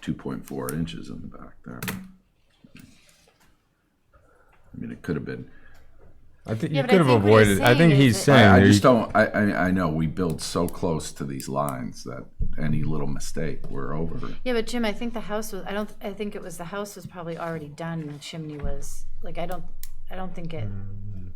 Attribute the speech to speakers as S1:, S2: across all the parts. S1: two point four inches in the back there. I mean, it could have been,
S2: I think you
S3: Yeah, but I
S2: could have
S3: think what he's
S2: avoided. I
S3: saying
S2: think
S3: is
S2: he's
S3: that-
S2: saying.
S1: I, I
S2: there
S1: just
S2: you-
S1: don't, I, I, I know, we build so close to these lines that any little mistake, we're over.
S3: Yeah, but Jim, I think the house was, I don't, I think it was, the house was probably already done and the chimney was, like, I don't, I don't think it,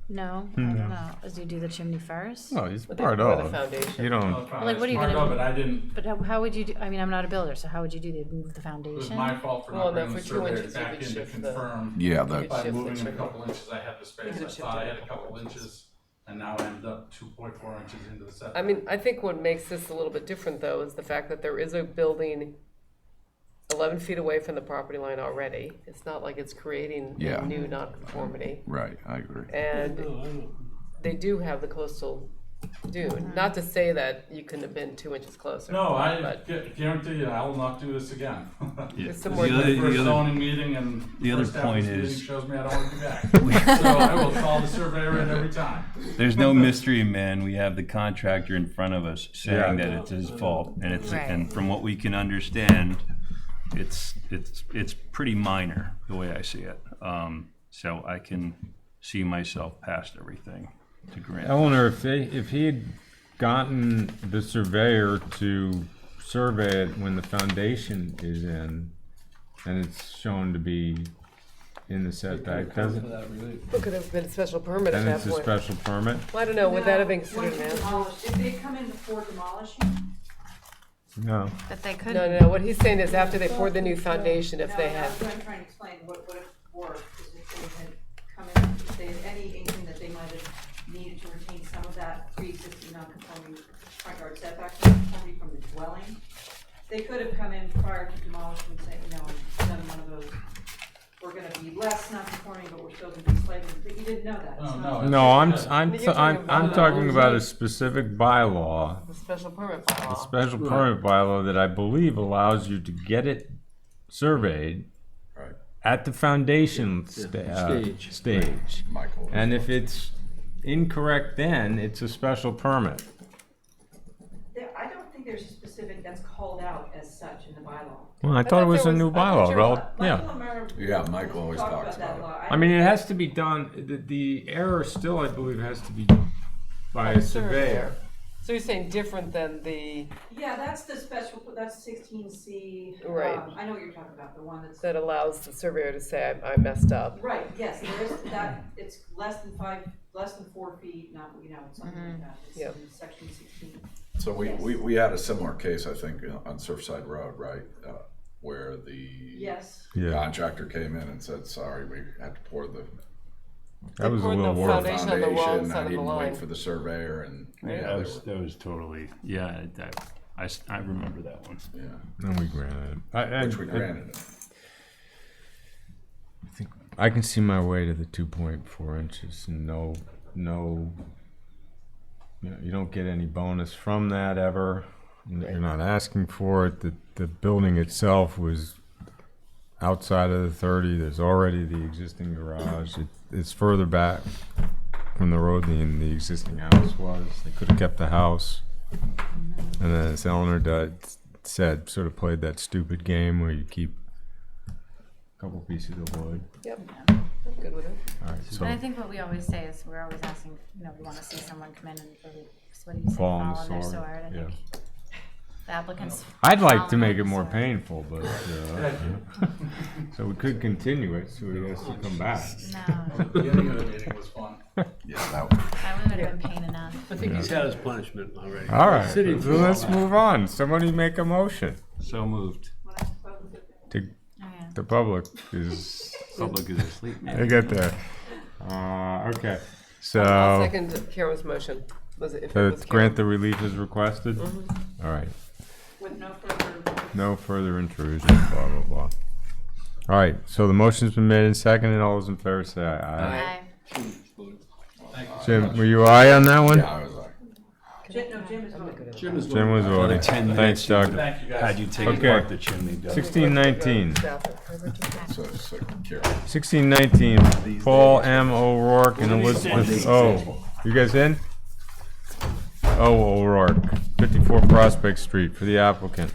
S3: no,
S2: Hmm,
S3: I don't know. Do you do the chimney first?
S2: No, he's part
S4: Or the
S2: of.
S4: foundation.
S2: You don't.
S3: Like, what are you
S5: Part
S3: gonna do?
S5: of it, I didn't,
S3: But how, how would you do, I mean, I'm not a builder, so how would you do that? Move the
S5: it was
S3: foundation?
S5: my fault for
S4: Well, no,
S5: not bringing the
S4: for two
S5: surveyor
S4: inches, you
S5: back
S4: could
S5: in to
S4: shift the-
S5: confirm.
S1: Yeah,
S4: It's
S1: that,
S5: By
S4: shift the
S5: moving a
S4: trigger.
S5: couple inches, I had the space,
S4: You
S5: I
S4: could
S5: thought I
S4: shift it
S5: had
S4: a
S5: a
S4: couple
S5: couple inches, and now I end up two point four inches into the
S4: I
S5: setback.
S4: mean, I think what makes this a little bit different though is the fact that there is a building eleven feet away from the property line already. It's not like it's creating
S1: Yeah.
S4: a new nonconformity.
S1: right, I agree.
S4: And they do have the coastal dune. Not to say that you couldn't have been two inches closer.
S5: No, I
S4: But-
S5: gu- guarantee you, I will not do this again.
S4: There's
S6: The
S4: some more-
S6: other-
S5: First
S6: the other-
S5: zoning meeting and
S6: the other
S5: first half of
S6: point
S5: this meeting
S6: is-
S5: shows me I don't want to be back. So I will call the surveyor in every time.
S6: There's no mystery, man. We have the contractor in front of us saying
S2: Yeah.
S6: that it's his fault, and it's,
S3: Right.
S6: and from what we can understand, it's, it's, it's pretty minor, the way I see it. Um, So I can see myself past everything to grant.
S2: Eleanor, if they, if he had gotten the surveyor to survey it when the foundation is in, and it's shown to be in the setback, doesn't,
S4: It could have been a special permit at
S2: then
S4: that
S2: it's a
S4: point.
S2: special permit?
S4: Well, I don't know, would that have been
S7: No,
S4: considered
S7: once
S4: an
S7: it's
S4: answer?
S7: demolished. If they come in before demolishing,
S2: No.
S3: But they
S4: No,
S3: couldn't,
S4: no, no, what he's saying is after they poured the new foundation, if
S7: no,
S4: they had,
S7: that's what I'm trying to explain, what, what it were, is if they had come in, if they had any inkling that they might have needed to retain some of that pre-existing non-conforming front yard setback non-conformity from the dwelling, they could have come in prior to demolishing and say, you know, i done one of those, we're gonna be less non-conforming, but we're still gonna be slightly, but you didn't know that.
S5: Oh,
S7: It's
S5: no,
S7: not-
S5: it's-
S2: No, I'm, I'm,
S4: But you're
S2: I'm,
S4: talking
S2: I'm
S4: about-
S2: talking about a specific bylaw,
S4: the special permit
S2: a
S4: bylaw.
S2: special permit bylaw that I believe allows you to get it surveyed
S1: Right.
S2: at the foundation sta- uh,
S8: Stage.
S2: stage.
S1: Michael.
S2: And if it's incorrect, then it's a special permit.
S7: There, I don't think there's a specific that's called out as such in the bylaw.
S2: Well, I
S4: thought
S2: thought it
S4: there
S2: was a
S4: was-
S2: new
S4: I thought
S2: bylaw,
S4: there
S2: rel-
S4: was-
S2: yeah.
S7: Michael Amaro
S1: Yeah, Michael always
S7: talked
S1: talks
S7: that
S1: about it.
S7: law.
S2: I mean, it has to be done, the, the error still, I believe, has to be by a surveyor.
S4: So you're saying different than the,
S7: Yeah, that's the special, that's sixteen C. um,
S4: Right.
S7: I know what you're talking about, the one that's,
S4: that allows the surveyor to say, I I messed up?
S7: right, yes, there is that, it's less than five, less than four feet, not, you know, something like that. It's
S4: Mm-hmm. Yep.
S7: in Section sixteen.
S1: So we, we, we had a similar case, I think, uh, on Surfside Road, right? Uh, Where the
S7: Yes,
S1: contractor came in and said, sorry, we had to pour the
S2: That was a
S4: Or the
S2: little worse.
S4: foundation on the wrong
S1: foundation,
S4: side
S1: I
S4: of the
S1: didn't
S4: line.
S1: wait for the surveyor and,
S6: That
S1: yeah, they
S6: was,
S1: were,
S6: that was totally, yeah, that- I, s- I remember that one.
S1: yeah,
S2: And we granted it. I, I-
S1: which we granted it.
S2: I can see my way to the two point four inches and no, no. You, know, you don't get any bonus from that ever. You're not asking for it. The, the building itself was outside of the thirty. There's already the existing garage. It, it's further back from the road than the existing house was. They could have kept the house. And then as Eleanor did, said, sort of played that stupid game where you keep a couple pieces of wood.
S4: Yep, I'm good with it.
S2: Alright,
S3: and I
S2: so
S3: think what we always say is, we're always asking, you know, we wanna see someone come in and, really- what do you say,
S2: Fall on the
S3: their
S2: sword,
S3: sword, I think. The applicants.
S2: I'd like to
S3: fall on
S2: make
S3: their
S2: it more
S3: sword.
S2: painful, but, uh, so we could continue it, so he has to come back.
S3: No,
S5: The beginning of the meeting was fun.
S1: Yeah, that was.
S3: that would have been pain enough.
S8: I think he's had his punishment already.
S2: Alright, so
S8: Sitting for a
S2: let's
S8: while.
S2: move on. Somebody make a motion.
S6: So moved.
S7: when I spoke with the
S2: The,
S3: Oh, yeah.
S2: the public is,
S6: Public is asleep, man.
S2: they got there. Uh, okay,
S4: I'll
S2: so,
S4: second Karen's motion. Was it, if it
S2: uh,
S4: was Karen?
S2: Oh. grant the relief as requested? Alright,
S7: with no further.
S2: no further intrusion, blah, blah, blah. Alright, so the motion's been made and seconded. All those in favor say aye.
S3: Aye.
S2: Jim, were you aye on that one?
S1: Yeah, I was like,
S7: Jim, no, Jim is voting.
S8: Jim is
S2: Jim was voting.
S6: Ten
S2: Thanks,
S6: minutes.
S2: Doug.
S5: Thank you guys.
S6: Had you take
S2: Okay.
S6: apart the chimney, Doug.
S2: Sixteen nineteen.
S1: so, so, Karen,
S2: 1619, Paul M. O'Rourke and Elizabeth O. You guys in? O. O'Rourke, 54 Prospect Street, for the applicant.